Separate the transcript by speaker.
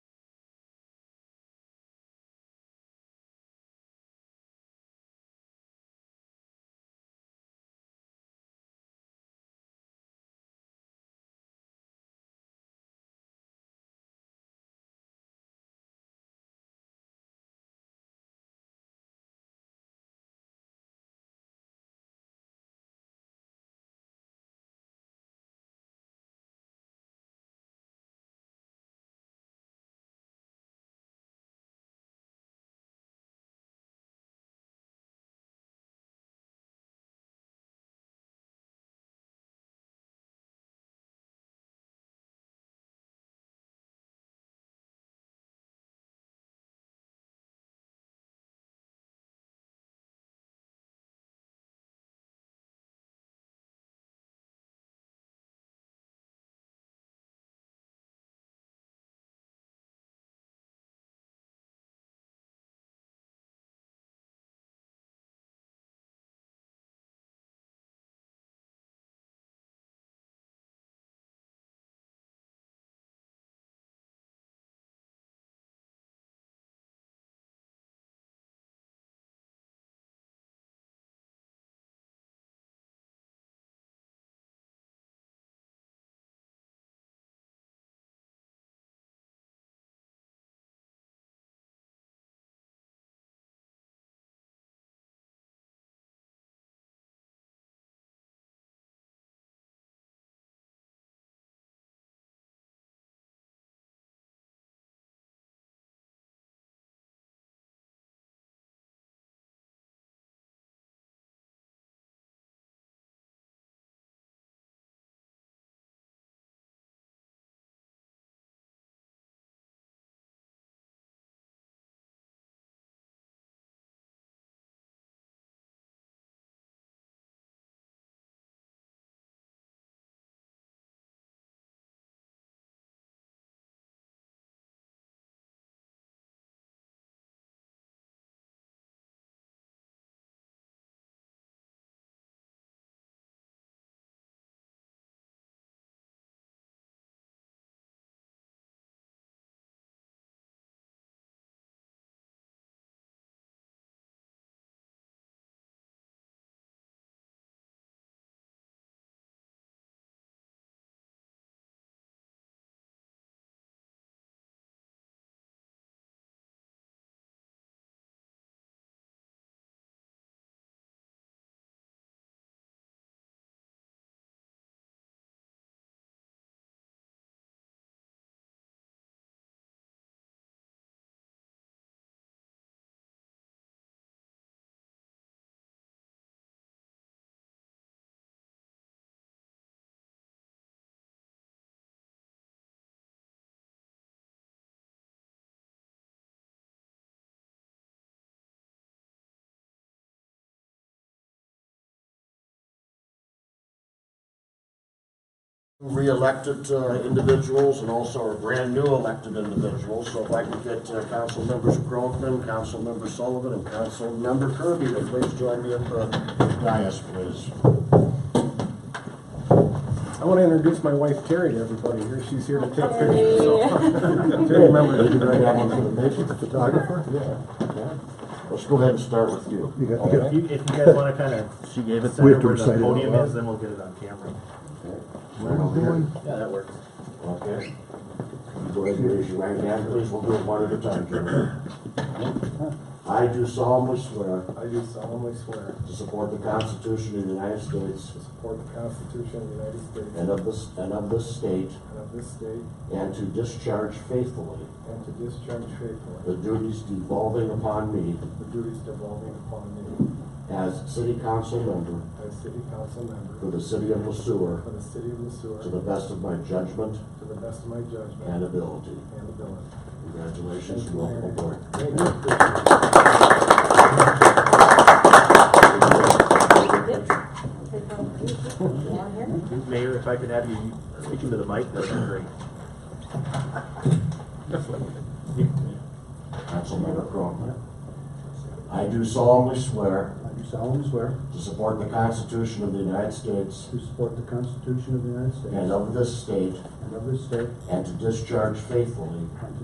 Speaker 1: re-elected uh, individuals and also our brand-new elected individuals. So if I could get uh, Councilmembers Groveman, Councilmember Sullivan, and Councilmember Kirby to please join me at the dais, please.
Speaker 2: I want to introduce my wife Terry to everybody here. She's here to take pictures.
Speaker 3: Hey.
Speaker 2: Terry, remember, she's right
Speaker 1: Yeah,
Speaker 2: down
Speaker 1: I'm
Speaker 2: on
Speaker 1: gonna make it the photographer. Let's go ahead and start with you.
Speaker 4: If you, if you guys wanna kind of, she gave us
Speaker 5: We
Speaker 4: where
Speaker 5: have to
Speaker 4: the
Speaker 5: recite it out
Speaker 4: podium
Speaker 5: loud.
Speaker 4: is, then we'll get it on camera.
Speaker 1: Right over here.
Speaker 4: Yeah, that works.
Speaker 1: Okay. Go ahead and raise your right hand, please. We'll do it one at a time, Jim. I do solemnly swear
Speaker 2: I do solemnly swear
Speaker 1: to support the Constitution of the United States
Speaker 2: to support the Constitution of the United States
Speaker 1: and of this, and of this state,
Speaker 2: and of this state,
Speaker 1: and to discharge faithfully
Speaker 2: and to discharge faithfully
Speaker 1: the duties devolving upon me
Speaker 2: the duties devolving upon me
Speaker 1: as city council member
Speaker 2: as city council member
Speaker 1: for the city of
Speaker 2: for
Speaker 1: Lesueur
Speaker 2: the city of Missouri
Speaker 1: to the best of my judgment
Speaker 2: to the best of my
Speaker 1: and
Speaker 2: judgment
Speaker 1: ability.
Speaker 2: and ability.
Speaker 1: Congratulations, and welcome aboard.
Speaker 4: Mayor, if I could have you speak into the mic, that'd be great.
Speaker 1: Councilmember Cronin. I do solemnly swear
Speaker 5: I do solemnly swear
Speaker 1: to support the Constitution of the United States
Speaker 5: to support the Constitution of the United States
Speaker 1: and of this state,
Speaker 5: and of this state,
Speaker 1: and to discharge faithfully
Speaker 5: and to